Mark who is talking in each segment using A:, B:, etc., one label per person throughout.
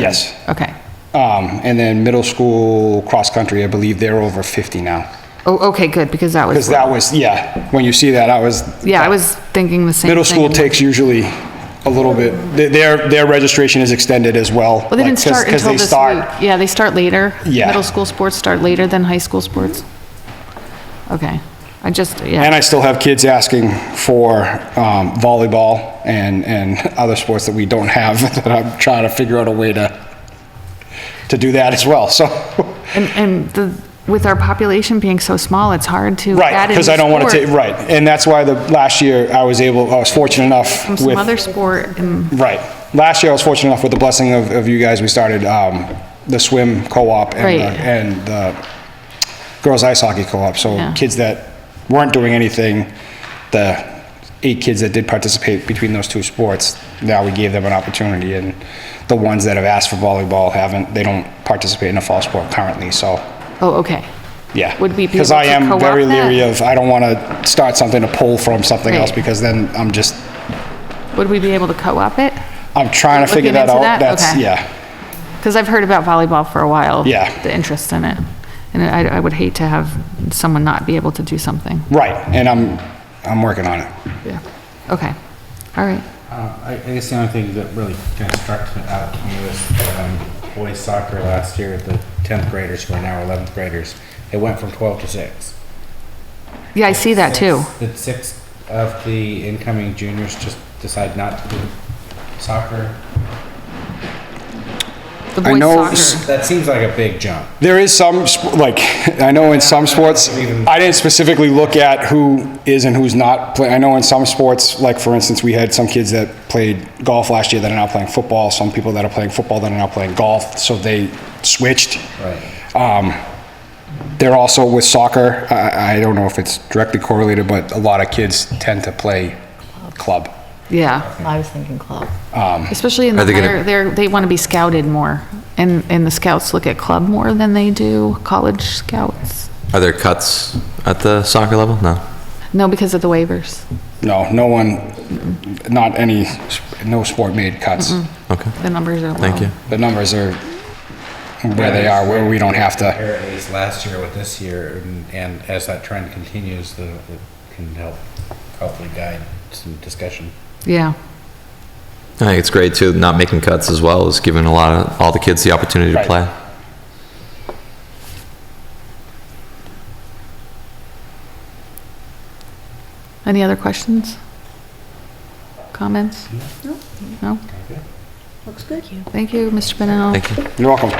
A: Yes.
B: Okay.
A: Um, and then middle school cross-country, I believe they're over 50 now.
B: Oh, okay, good, because that
A: Because
B: was,
A: that was, yeah, when you see that, I was,
B: yeah, I was thinking the same thing.
A: middle school takes usually a little bit, th- their, their registration is extended as well.
B: Well, they
A: like,
B: didn't
A: 'cause-
B: start
A: 'cause
B: until
A: they
B: this
A: start-
B: week. Yeah, they start later.
A: Yeah.
B: Middle school sports start later than high school sports. Okay, I just, yeah,
A: And I still have kids asking for um, volleyball and, and other sports that we don't have, that I'm trying to figure out a way to, to do that as well, so.
B: and, and the, with our population being so small, it's hard to
A: Right,
B: add in a
A: because I don't want to take,
B: sport
A: right, and that's why the, last year, I was able, I was fortunate enough
B: from
A: with.
B: some other sport and,
A: Right. Last year, I was fortunate enough with the blessing of, of you guys, we started um, the swim co-op and, the-
B: Right.
A: and the girls ice hockey co-op. So
B: Yeah.
A: kids that weren't doing anything, the eight kids that did participate between those two sports, now we gave them an opportunity. And the ones that have asked for volleyball haven't, they don't participate in a fall sport currently, so,
B: oh, okay.
A: yeah.
B: Would we be
A: Because
B: able
A: I
B: to
A: am
B: co-op
A: very
B: that?
A: leery of, I don't want to start something to pull from something
B: Right.
A: else because then I'm just,
B: Would we be able to co-op it?
A: I'm trying to figure
B: Looking
A: that
B: into
A: out.
B: that?
A: That's,
B: Okay.
A: yeah.
B: Because I've heard about volleyball for a while.
A: Yeah.
B: The interest in it. And I, I would hate to have someone not be able to do something.
A: Right, and I'm, I'm working on it.
B: Yeah. Okay, all right.
C: Uh, I I guess the only thing that really kind of struck me out to me was um, boys soccer last year, the 10th graders who are now 11th graders, it went from 12 to 6.
B: Yeah, I see that too.
C: Six- Did six of the incoming juniors just decide not to do soccer?
B: The
A: I
B: boys
A: know
B: soccer.
C: That seems like a big jump.
A: There is some, sp- like, I know in some sports, I didn't specifically look at who is and who's not playing. I know in some sports, like, for instance, we had some kids that played golf last year that are now playing football, some people that are playing football that are now playing golf, so they switched.
C: Right.
A: Um, They're also with soccer, I, I don't know if it's directly correlated, but a lot of kids tend to play club.
B: Yeah,
D: I was thinking club.
B: especially in the
E: Are they gonna-
B: higher, they're, they want to be scouted more. And, and the scouts look at club more than they do college scouts.
E: Are there cuts at the soccer level? No.
B: No, because of the waivers.
A: No, no one, not any, s- no sport made cuts.
E: Okay.
B: The numbers are low.
E: Thank you.
A: the numbers are where they are, where we don't have to.
C: Compare A's last year with this year, and- and as that trend continues, the- it can help hopefully guide some discussion.
B: Yeah,
E: I think it's great too, not making cuts as well is giving a lot of, all the kids the opportunity to
A: Right.
E: play.
B: any other questions? Comments? No. No?
D: Looks good.
B: Thank you, Mr. Benel.
E: Thank you.
A: You're welcome.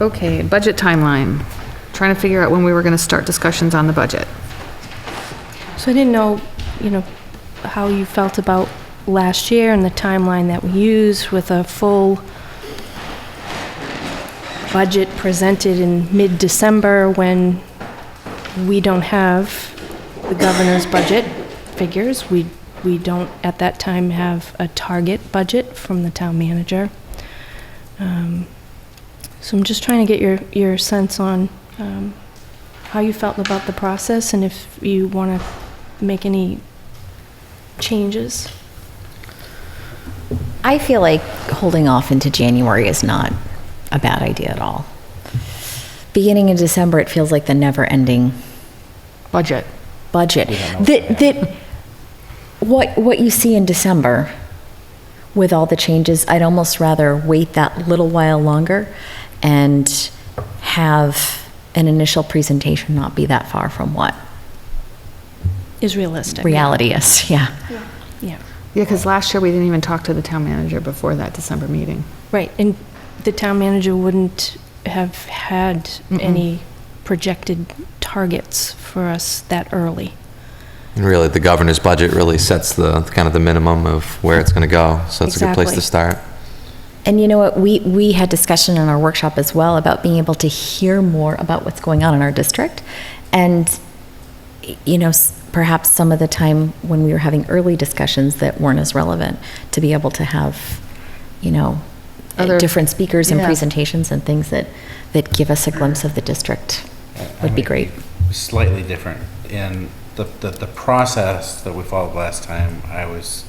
B: Okay, budget timeline. Trying to figure out when we were going to start discussions on the budget.
F: So I didn't know, you know, how you felt about last year and the timeline that we used with a full budget presented in mid-December when we don't have the governor's budget figures. We, we don't at that time have a target budget from the town manager. Um, So I'm just trying to get your, your sense on um, how you felt about the process and if you want to make any changes.
D: I feel like holding off into January is not a bad idea at all. Beginning in December, it feels like the never-ending
B: Budget.
D: budget. That, that, what, what you see in December with all the changes, I'd almost rather wait that little while longer and have an initial presentation not be that far from what
F: Is realistic.
D: reality is, yeah.
F: Yeah.
B: Yeah, because last year we didn't even talk to the town manager before that December meeting.
F: Right. And the town manager wouldn't have had any projected targets for us that early.
E: And really, the governor's budget really sets the, kind of the minimum of where it's going to go. So it's a good place to
F: Exactly.
E: start.
D: And you know what? We, we had discussion in our workshop as well about being able to hear more about what's going on in our district. And, you know, s- perhaps some of the time when we were having early discussions that weren't as relevant, to be able to have, you know,
B: Other-
D: different speakers and
B: yeah.
D: presentations and things that, that give us a glimpse of the district would be great.
C: Slightly different in the, the, the process that we followed last time, I was